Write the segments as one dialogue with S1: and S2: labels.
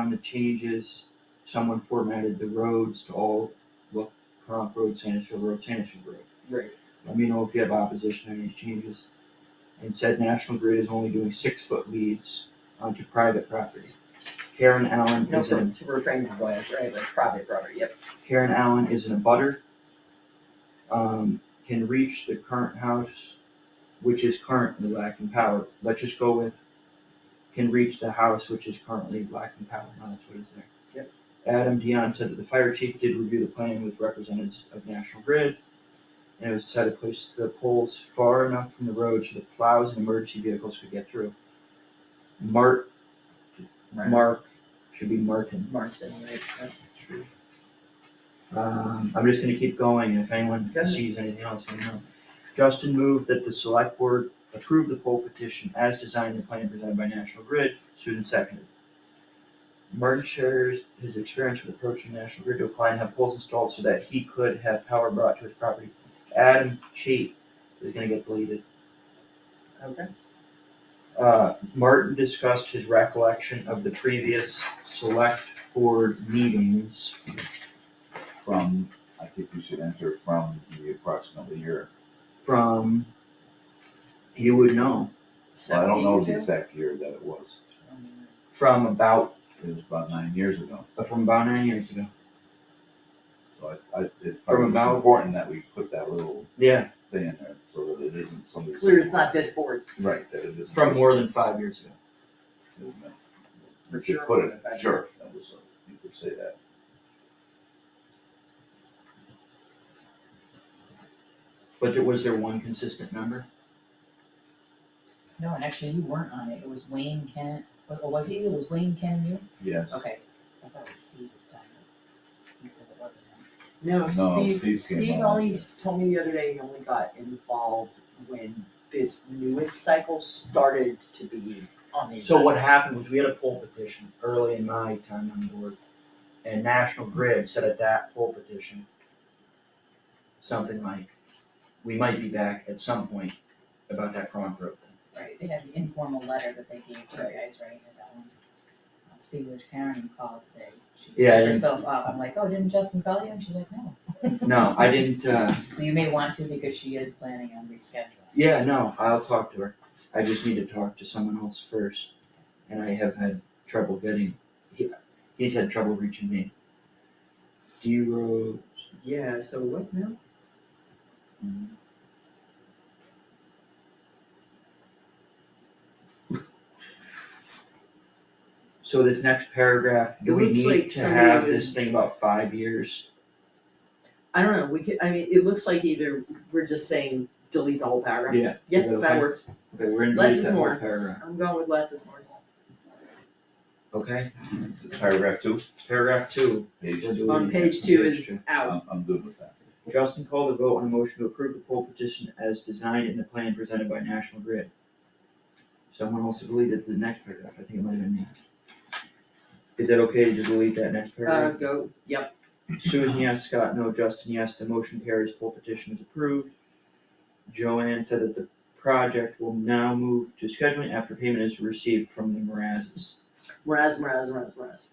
S1: on the changes, someone formatted the roads to all look Pahrump Road, Sanesville Road, Sanesville Road.
S2: Right.
S1: Let me know if you have opposition on these changes. And said National Grid is only doing six foot leads onto private property. Karen Allen
S2: No,
S1: is
S2: for,
S1: in,
S2: to refrain from going, right, like private property, yep,
S1: Karen Allen is in a butter. Um, can reach the current house, which is currently lacking power. Let's just go with can reach the house which is currently lacking power, now that's what is there.
S2: Yep.
S1: Adam Dion said that the fire chief did review the plan with representatives of National Grid. And it was decided to place the poles far enough from the road so that plows and emergency vehicles could get through. Mark, Mark, should be Martin.
S2: Marston, right, that's true.
S1: Um, I'm just gonna keep going, and if anyone
S2: Okay.
S1: sees anything else, let me know. Justin moved that the select board approve the poll petition as designed and plan presented by National Grid, Susan seconded. Martin shares his experience with approaching National Grid to apply and have poles installed so that he could have power brought to his property. Adam Chait is gonna get deleted.
S2: Okay.
S1: Uh, Martin discussed his recollection of the previous select board meetings.
S3: From, I think you should enter from the approximately year,
S1: from, you would know,
S3: well, I don't know the
S2: Seventy-two?
S3: exact year that it was,
S1: from about,
S3: it was about nine years ago.
S1: from about nine years ago.
S3: So I, I, it probably was
S1: about-
S3: important that we put that little
S1: Yeah,
S3: thing in there, so that it isn't somebody.
S2: Clear it's not this board,
S3: Right, that it isn't.
S1: from
S3: just-
S1: more than five years ago.
S3: We
S2: For
S3: could
S2: sure,
S3: put it,
S2: but-
S3: sure, that was, uh, you could say that.
S1: But there, was there one consistent number?
S4: No, and actually you weren't on it, it was Wayne, Ken, or was he, it was Wayne, Ken and you?
S3: Yes,
S4: Okay, I thought it was Steve at the time, he said it wasn't him.
S2: no,
S3: Steve came
S2: Steve, Steve
S3: on.
S2: only just told me the other day he only got involved when this newest cycle started to be on the.
S1: So what happened was we had a poll petition early in my time on the board, and National Grid said at that poll petition, something like, we might be back at some point about that Cronk Road thing.
S4: Right, they had an informal letter that they gave to you guys, right, at that one. Uh, Speaking of which Karen called today, she
S1: Yeah, I
S4: took
S1: didn't-
S4: herself up, I'm like, oh, didn't Justin call you? And she's like, no.
S1: No, I didn't, uh,
S4: So you may want to because she is planning on rescheduling.
S1: Yeah, no, I'll talk to her. I just need to talk to someone else first, and I have had trouble getting, he, he's had trouble reaching me. D Rose,
S2: Yeah, so what now?
S1: so this next paragraph, do
S2: It
S1: we
S2: looks
S1: need
S2: like
S1: to
S2: somebody
S1: have
S2: would-
S1: this thing about five years?
S2: I don't know, we could, I mean, it looks like either we're just saying delete the whole paragraph.
S1: Yeah.
S2: Yep,
S1: is that
S2: that
S1: okay?
S2: works,
S1: Okay, we're in
S2: Less
S1: delete
S2: is
S1: that
S2: more.
S1: whole paragraph,
S2: I'm going with less is more.
S1: okay?
S3: paragraph two,
S1: Paragraph two,
S3: page
S1: we're
S3: two,
S1: deleting
S2: On
S1: it.
S2: page two is out,
S3: I'm, I'm good with that.
S1: Justin called a vote on a motion to approve the poll petition as designed in the plan presented by National Grid. Someone also deleted the next paragraph, I think it might have been me. Is that okay to just delete that next
S2: uh,
S1: paragraph?
S2: go, yep,
S1: Susan, yes, Scott, no, Justin, yes, the motion carries, poll petition is approved. Joanne said that the project will now move to scheduling after payment is received from the Marazes.
S2: whereas, whereas, whereas, whereas,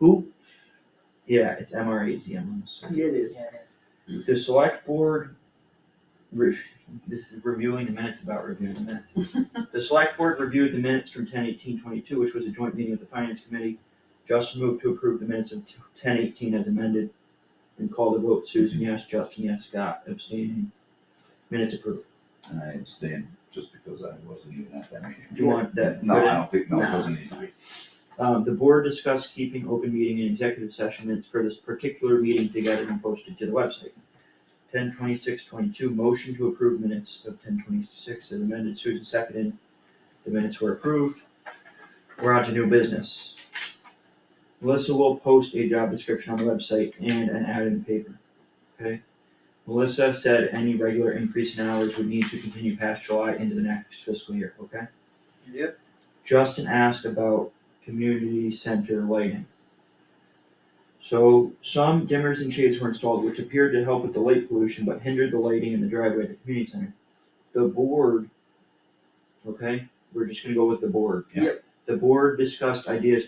S1: Who? Yeah, it's MRAZ, I'm sorry.
S2: it is.
S4: Yeah, it is.
S1: The select board, re- this is reviewing the minutes about reviewing the minutes. The select board reviewed the minutes from ten eighteen twenty-two, which was a joint meeting of the finance committee. Justin moved to approve the minutes of ten eighteen as amended and called a vote. Susan, yes, Justin, yes, Scott abstaining. Minutes approved.
S3: And I abstained just because I wasn't even at that meeting.
S1: Do you want that?
S3: No, I don't think, no, it
S2: No,
S3: doesn't
S2: it's
S3: need to be.
S1: Um, the board discussed keeping open meeting and executive session minutes for this particular meeting together and posted to the website. Ten twenty-six twenty-two, motion to approve minutes of ten twenty-six as amended, Susan seconded, the minutes were approved. We're on to new business. Melissa will post a job description on the website and an ad in the paper, okay? Melissa said any regular increase in hours would need to continue past July into the next fiscal year, okay?
S2: Yep.
S1: Justin asked about community center lighting. So some dimmers and shades were installed, which appeared to help with the light pollution, but hindered the lighting in the driveway at the community center. The board, okay, we're just gonna go with the board.
S2: Yep.
S1: The board discussed ideas